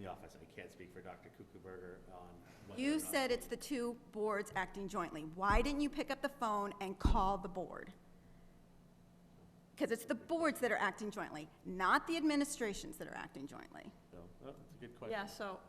the office, I can't speak for Dr. Kuchenberger on whether or You not- said it's the two boards acting jointly. Why didn't you pick up the phone and call the board? Because it's the boards that are acting jointly, not the administrations that are acting jointly. So, oh, that's a good question. Yeah, so,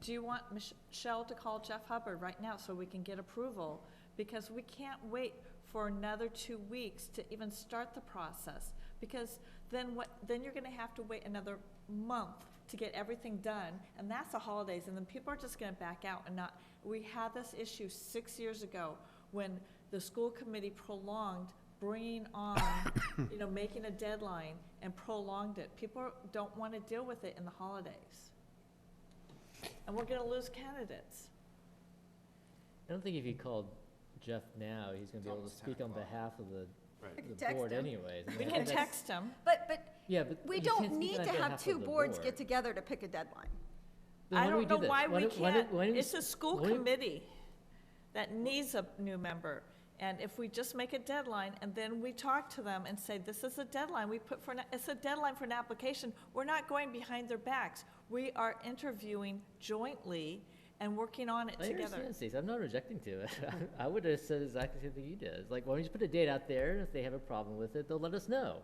do you want Mich- Michelle to call Jeff Hubbard right now so we can get approval? Because we can't wait for another two weeks to even start the process. Because then what, then you're gonna have to wait another month to get everything done, and that's the holidays, and then people are just gonna back out and not, we had this issue six years ago when the school committee prolonged bringing on, you know, making a deadline and prolonged it. People don't wanna deal with it in the holidays. And we're gonna lose candidates. I don't think if you called Jeff now, he's gonna be able to almost 10 speak on o'clock. behalf of the, Right. can the text board him. anyways. I mean, We I can think that's- text them. But, but Yeah, but. we you can't don't speak need on to have behalf of two the boards get board. together to pick a deadline. Then I why do we don't do know this? why we don't- why don't- can't. why don't we It's s- a school why don't- committee that needs a new member. And if we just make a deadline and then we talk to them and say, this is a deadline, we put for, an- it's a deadline for an application, we're not going behind their backs. We are interviewing jointly and working on it I together. understand, Stacey, I'm not rejecting to it. I would have said exactly the same thing you did. It's Like, why don't you just put a date out there, and if they have a problem with it, they'll let us know.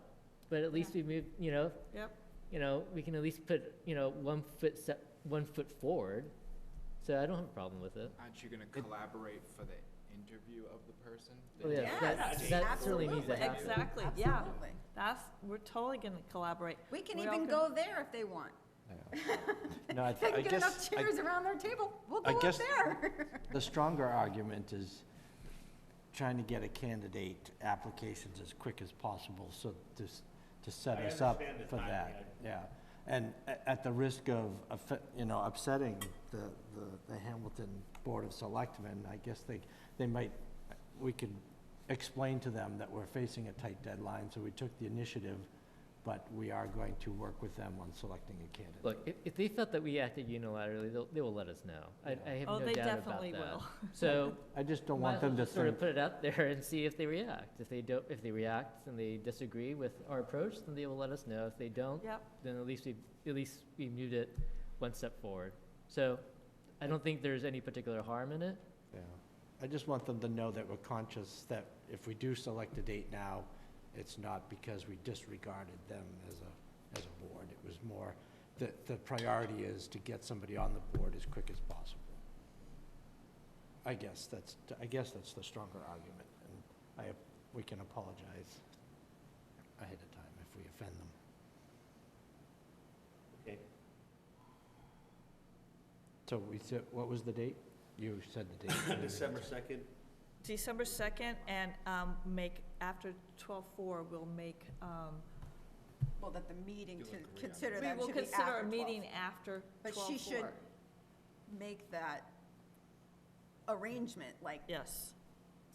But at least we move, you know, Yep. you know, we can at least put, you know, one foot set, one foot forward. So I don't have a problem with it. Aren't you gonna collaborate for the interview of the person? Well, Oh, yeah, Yes, that, that certainly needs to absolutely. happen. Exactly, yeah. Absolutely. That's, we're totally gonna collaborate. We can We're all even gonna- go there if they want. No, I If they th- I can get enough guess, I- chairs around their table, we'll I go up guess- there. the stronger argument is trying to get a candidate applications as quick as possible, so to, s- to set I us up understand the for timing, that, yeah. And a- at the risk of, offe- you know, upsetting the, the, the Hamilton Board of Selectmen, I guess they, they might, we could explain to them that we're facing a tight deadline, so we took the initiative, but we are going to work with them on selecting a candidate. Look, if, if they felt that we acted unilaterally, they'll, they will let us know. I, I have Oh, no doubt about that. they definitely will. So. I just don't might want as well them to just Sort think of put it out there and see if they react. If they don't, if they react and they disagree with our approach, then they will let us know. If they don't, Yep, then at least we, at least we moved it one step forward. So I don't think there's any particular harm in it. Yeah, I just want them to know that we're conscious that if we do select a date now, it's not because we disregarded them as a, as a board. It was more that the priority is to get somebody on the board as quick as possible. I guess that's, I guess that's the stronger argument, and I, we can apologize ahead of time if we offend them. Okay. So we said, what was the date? You said the date. December second, December second, and, um, make, after twelve-four, we'll make, um, Well, that the meeting You to agree on consider we that will should be consider after 12. a meeting after But twelve-four. she should make that arrangement, like, Yes,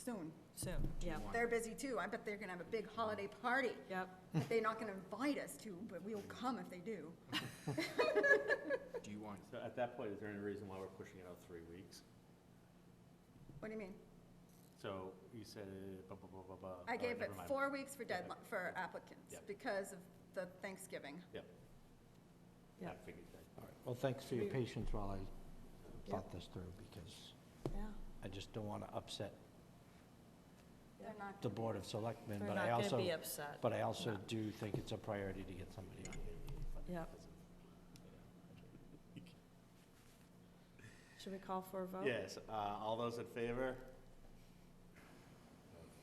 soon. soon, yeah, They're busy too. I bet they're gonna have a big holiday party yep. that they're not gonna invite us to, but we'll come if they do. Do you want, so at that point, is there any reason why we're pushing it out three weeks? What do you mean? So you said, uh, blah, blah, blah, blah, blah. I All right, gave it never mind. four weeks for Okay. deadline, for applicants Yeah. because of the Thanksgiving. I Yeah. figured that. All right, well, thanks for your We- patience while I Yeah. thought this through, because Yeah. I just don't want to upset They're not. the Board of Selectmen, They're but I not gonna also, be upset, but I also No. do think it's a priority to get somebody on here. yep. Should we call for a vote? Yes, uh, all those in favor?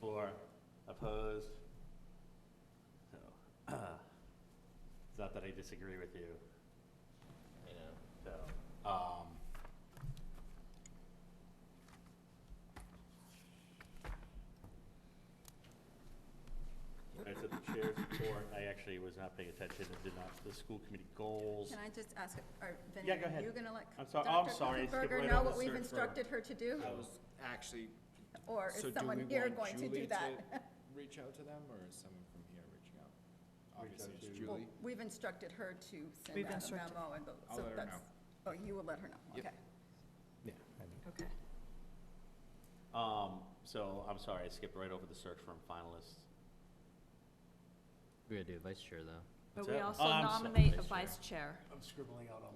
Four, opposed? So, It's not that I disagree with you, You know, so, um. All right, so the chair's report, I actually was not paying attention and did not, the school committee goals. Can I just ask, are, Vinnie, Yeah, go are ahead. you gonna let I'm sorry- I'm Dr. sorry, I skipped Kuchenberger right know over what we've search for- instructed her to do? I was actually, Or so is do we someone here want going to Julie do to that? reach out to them, or is someone from here reaching out? Reach Obviously, out it's to- Well, Julie. We've instructed her to We've send out a instructed- memo and go, I'll so let her that's, know. oh, you will let her know, Yep. okay. Yeah, I mean, Okay, Um, so, I'm sorry, I skipped right over the search firm finalists. we're gonna do vice chair though. but What's we that? also Oh, I'm sorry, nominate a vice chair. vice chair. I'm scribbling out all